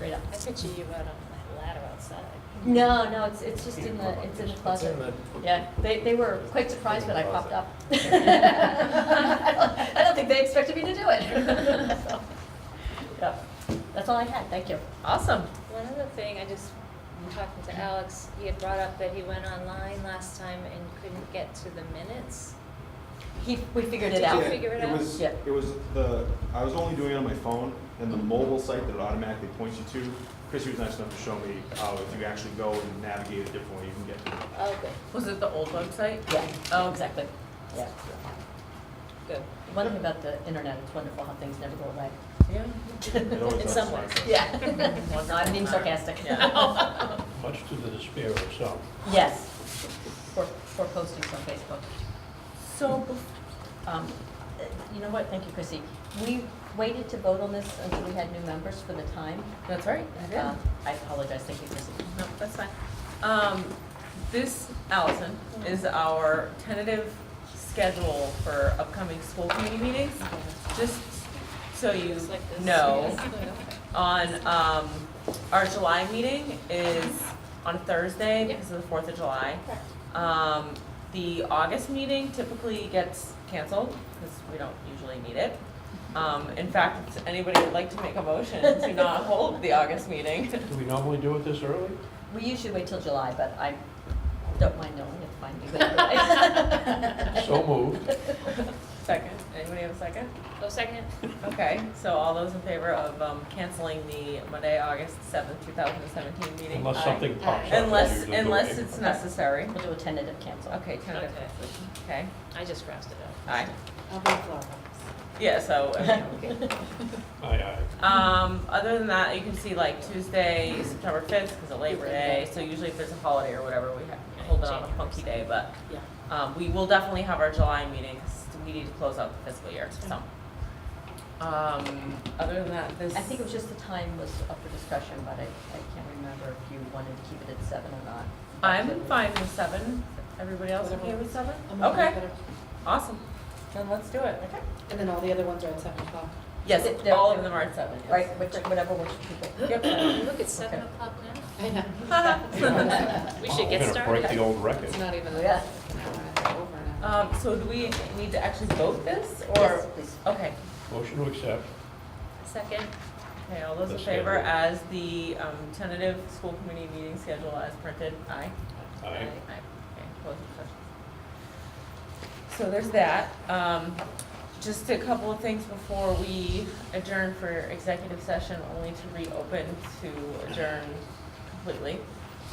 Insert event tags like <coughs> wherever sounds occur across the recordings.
right up. I picture you out on that ladder outside. No, no, it's, it's just in the, it's in the closet. Yeah, they, they were quite surprised when I popped <laughs> up. I don't- I don't think they expected me to do it. <laughs> So, Yeah, that's all I had, thank you. Awesome. One other thing, I just, talking to Alex, he had brought up that he went online last time and couldn't get to the minutes. He, we figured Did it you out. figure it out? was, Yeah. it was the, I was only doing it on my phone, and the mobile site that it automatically points you to, Chrissy was nice enough to show me how if you actually go and navigate it differently, you can get to it. Oh, good, Was it the old website? Yeah, Oh. exactly, yeah. good. One thing about the internet, it's wonderful how things never go away. Yeah. It always In does some like ways. <laughs> that. Yeah. No, I'm being sarcastic. Yeah. <laughs> Much to the despair of some. Yes, for, for postings on Facebook. So, Um, uh, You know what, thank you, Chrissy. We waited to vote on this until we had new members for the time. that's right, Uh, I apologize, thank you, Chrissy. No, that's fine. Um, this, Allison, is our tentative schedule for upcoming school committee meetings. Just so you Just like this. <laughs> know, Yes. on, um, our July meeting is on Thursday Yeah. because of the Fourth of July. Correct. Um, the August meeting typically gets canceled because we don't usually need it. Um, in fact, if anybody would like to make a motion to not <laughs> hold the August meeting? Do we normally do it this early? We usually wait till July, but I don't mind knowing if I <laughs> do it. So moved. Second, anybody have a second? <laughs> Oh, second? Okay, so all those in favor of, um, canceling the Monday, August seventh, two thousand and seventeen meeting? Unless Aye. something pops up. that Unless, usually unless do it. it's necessary. We'll do a tentative cancel. Okay, tentative, Okay. okay, I just crossed it out. aye. I'll be Florida. Yeah, <laughs> so, I mean, okay. Aye, Um, other than that, you can see like Tuesday, September fifth, because of Labor Day, so usually if there's a holiday or whatever, we have, hold it on a funky day, but, Yeah. um, we will definitely have our July meeting, 'cause we need to close out the fiscal year, so. Um, other than that, this. I think it was just the time was up for discussion, but I, I can't remember if you wanted to keep it at seven or not. I'm fine with seven, everybody else okay with seven? Okay, awesome, then let's do it. Okay. And then all the other ones are at seven o'clock. Yes, They're- all of them are at seven, yes. Right, which, whatever works for people. <coughs> Yep. Look, it's seven o'clock now. <laughs> I <laughs> know. <laughs> We should get We're gonna break the started. old record. It's not even. Oh, yeah. an hour, it's over an hour. Um, so do we need to actually vote this, or? Yes, please. Okay, Motion to accept. Second, Okay, all those in The favor schedule. as the um, tentative school committee meeting schedule as printed, aye? Aye. Aye, okay, opposed, abstentions. So there's that. Um, Just a couple of things before we adjourn for executive session, only to reopen to adjourn completely.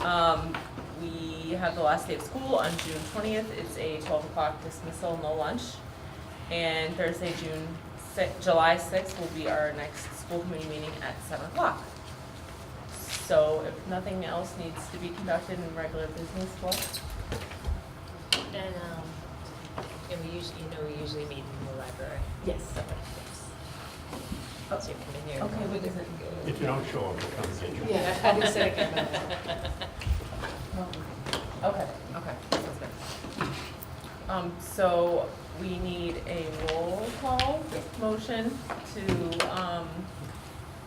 Um, We have the last day of school on June twentieth, it's a twelve o'clock dismissal, no lunch. And Thursday, June si- July sixth will be our next school committee meeting at seven o'clock. So if nothing else needs to be conducted in regular business, what? and, um, and we usually, you know, we usually meet in the library. Yes. So you come in here. Okay, we can, If you don't show up, we'll come get you. Yeah, I just said I came out. okay, okay, sounds good. Um, so we need a roll call motion to, um,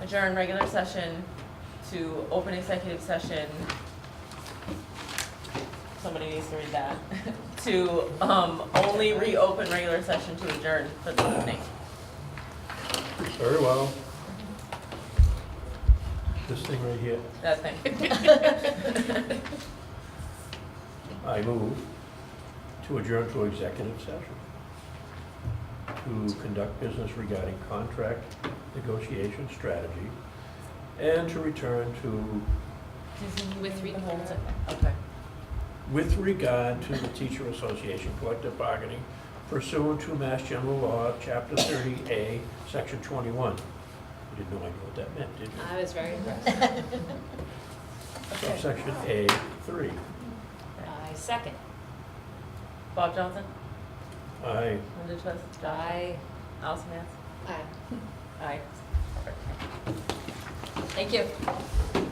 adjourn regular session to open executive session. Somebody needs to read that, <laughs> to, um, only reopen regular session to adjourn for the evening. Very well. This thing right here, That thing. I move to adjourn to executive session to conduct business regarding contract negotiation strategy and to return to With three- The whole thing. Okay. With regard to the teacher association collective bargaining pursuant to Mass General Law, Chapter 30A, Section 21. You didn't know I knew what that meant, did you? I was very impressed. Subsection A3. I second. Bob Johnson, I, Linda Chess, Josh, I Allison Mance. Aye. Aye. Thank you.